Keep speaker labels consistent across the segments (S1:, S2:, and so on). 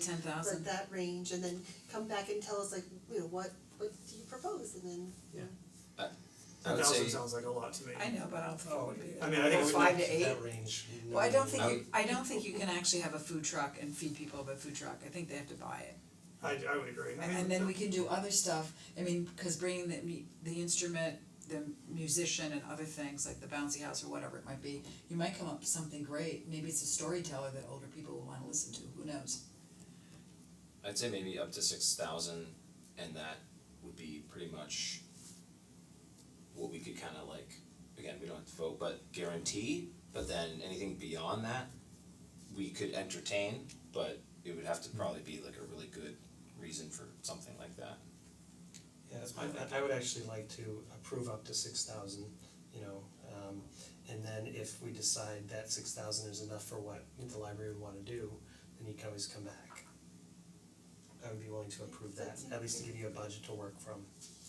S1: Ten
S2: like
S1: thousand,
S2: that range and then come back and tell us like, you know, what what do you propose and then
S3: I
S4: I
S3: would
S4: would
S3: say,
S4: say- sounds like a lot to me.
S1: I know, but I don't think it
S4: Oh,
S1: would be.
S4: I mean, I think it would
S5: Five
S4: be
S5: to eight?
S4: that range.
S1: Well, I don't think
S4: I
S1: you, I don't think you can actually have a food truck and feed people with a food truck, I think they have to buy it.
S4: I I would agree, I
S1: And
S4: mean,
S1: and then we can do other stuff, I mean, cause bringing the mu- the instrument, the musician and other things, like the bouncy house or whatever it might be, you might come up with something great, maybe it's a storyteller that older people will wanna listen to, who knows?
S3: I'd say maybe up to six thousand and that would be pretty much what we could kinda like, again, we don't have to vote, but guarantee, but then anything beyond that we could entertain, but it would have to probably be like a really good reason for something like that.
S5: Yeah, that's my, I I would actually like to approve up to six thousand, you know, um and then if we decide that six thousand is enough for what the library would wanna do, then you can always come back. I would be willing to approve that, at least to give you a budget to work from.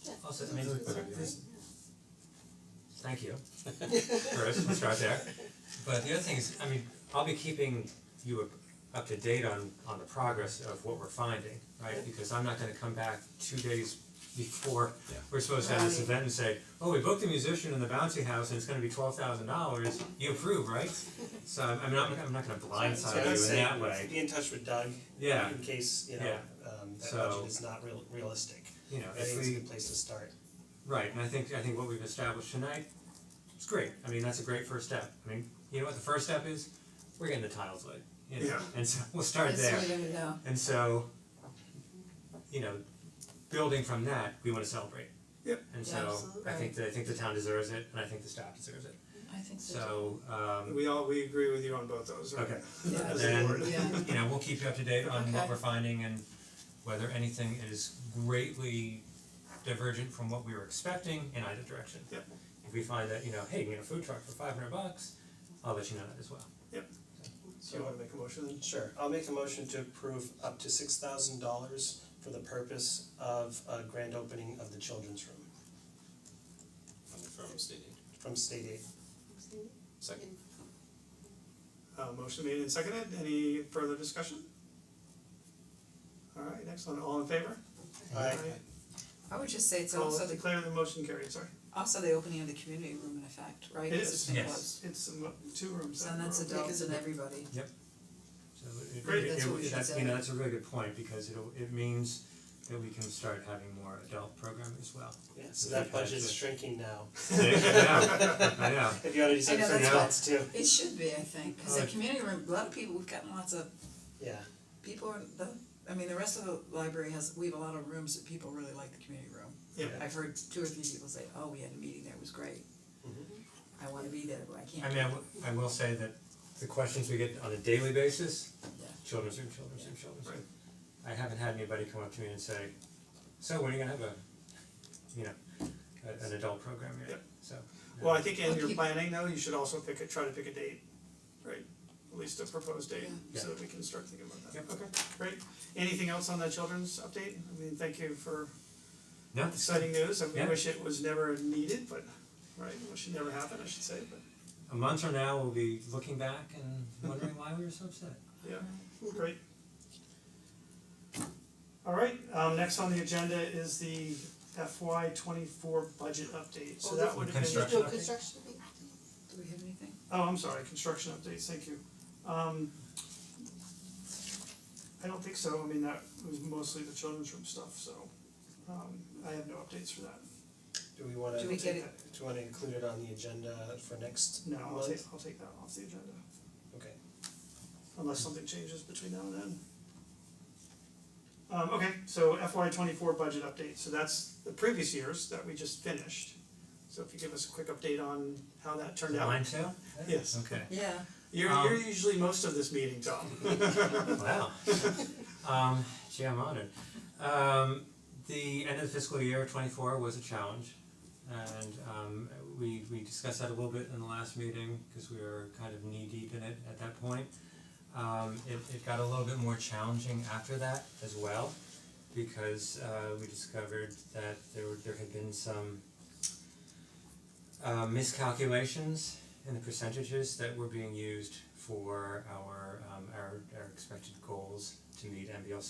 S2: yeah.
S6: Also, I mean, this, thank you for us to start there. But the other thing is, I mean, I'll be keeping you up up to date on on the progress of what we're finding, right? Because I'm not gonna come back two days before
S3: Yeah.
S6: we're supposed to have this
S1: Right.
S6: event and say, oh, we booked a musician in the bouncy house and it's gonna be twelve thousand dollars, you approve, right? So I'm I'm not I'm not gonna
S5: So I
S6: blindside
S5: would
S6: you in
S5: say
S6: that way,
S5: Be in touch with Doug.
S6: Yeah.
S5: In case, you know,
S6: Yeah.
S5: um that
S6: So-
S5: budget is not real realistic.
S6: you know,
S5: I
S6: if
S5: think it's
S6: we
S5: a good place to start.
S6: Right, and I think I think what we've established tonight is great. I mean, that's a great first step. I mean, you know what the first step is? We're getting the tiles laid. You know?
S4: Yeah.
S6: And so we'll start there.
S1: That's the way to go.
S6: And so, you know, building from that, we wanna celebrate.
S4: Yep.
S6: And
S1: Yeah,
S6: so
S1: absolutely.
S6: I think the I think the town deserves it and I think the staff deserves it.
S1: I think so.
S6: So um
S4: we all, we agree with you on both those, right?
S6: Okay.
S1: Yeah.
S4: As a
S6: Then-
S4: board.
S1: Yeah.
S6: you know, we'll keep you up to date on
S1: Okay.
S6: what we're finding and whether anything is greatly divergent from what we were expecting in either direction.
S4: Yep.
S6: If we find that, you know, hey, we got a food truck for five hundred bucks, I'll let you know that as well.
S4: So you wanna make a motion then?
S5: Sure, I'll make a motion to approve up to six thousand dollars for the purpose of a grand opening of the children's room
S3: I'm from stating,
S5: from state aid.
S3: second,
S4: Uh motion made and seconded, any further discussion? Alright, excellent, all in favor?
S5: Aye.
S1: I would just say it's
S4: So
S1: also the,
S4: declare the motion carried, sorry,
S1: also the opening of the community room in effect, right? 'Cause
S4: It
S1: it's
S4: is.
S1: been
S6: Yes.
S1: closed.
S4: it's a mo- two rooms.
S1: So that's adults and everybody.
S6: So it- it
S4: Great.
S6: it-
S1: That's what we
S6: it-
S1: should
S6: that's,
S1: say.
S6: you know, that's a really good point because it'll it means that we can start having more adult programming as well.
S5: Yeah, so that budget's shrinking now.
S6: Yeah, I know.
S5: If you already
S1: I
S5: said
S1: know,
S5: thirty
S1: that's
S5: bucks too,
S1: It should be, I think, cause the
S6: Alright.
S1: community room, a lot of people, we've gotten lots of
S5: yeah,
S1: people, are the, I mean, the rest of the library has, we have a lot of rooms that people really like the community room.
S4: Yeah.
S1: I've heard two or three people say, oh, we had a meeting there, it was great. I wanna be there, but I
S6: Mm-hmm. I
S1: can't.
S6: mean, I wi- I will say that the questions we get on a daily basis,
S1: Yeah.
S6: children's room, children's room, children's room.
S4: Right.
S6: I haven't had anybody come up to me and say, so when are you gonna have a, you know, a- an adult program here,
S4: Yep.
S6: so. yeah.
S4: Well, I think in
S1: I'll
S4: your
S1: keep-
S4: planning though, you should also pick a, try to pick a date, right? At least a proposed date,
S6: Yeah.
S4: so that we can start thinking about that.
S6: Yep.
S4: Okay, great. Anything else on the children's update? I mean, thank you for
S6: No, it's-
S4: exciting news. I
S6: Yeah.
S4: wish it was never needed, but, right, wish it never happened, I should say, but,
S6: a month from now, we'll be looking back and wondering why we were so upset.
S1: Mm-hmm.
S4: yeah, great. Alright, um, next on the agenda is the FY twenty-four budget update, so
S1: Oh,
S4: that would have been.
S6: Construction.
S2: No construction,
S1: Do we have anything?
S4: Oh, I'm sorry, construction updates, thank you. Um I don't think so, I mean, that was mostly the children's room stuff, so um I have no updates for that.
S5: do we wanna,
S1: Do
S5: do
S1: we
S5: we
S1: get it?
S5: wanna include it on the agenda for next
S4: No,
S5: month?
S4: I'll take I'll take that off the agenda,
S5: Okay,
S4: unless something changes between now and then. Um okay, so FY twenty four budget update, so that's the previous years that we just finished. So if you give us a quick update on how that turned out.
S6: Mine too?
S4: Yes.
S6: Okay.
S1: Yeah.
S4: You're
S6: Um,
S4: you're usually most of this meeting, Tom.
S6: Wow. Um, gee, I'm honored. Um, the end of the fiscal year twenty four was a challenge. And um, we we discussed that a little bit in the last meeting because we were kind of knee deep in it at that point. Um, it it got a little bit more challenging after that as well because uh, we discovered that there were there had been some uh miscalculations in the percentages that were being used for our um our our expected goals to meet MBLC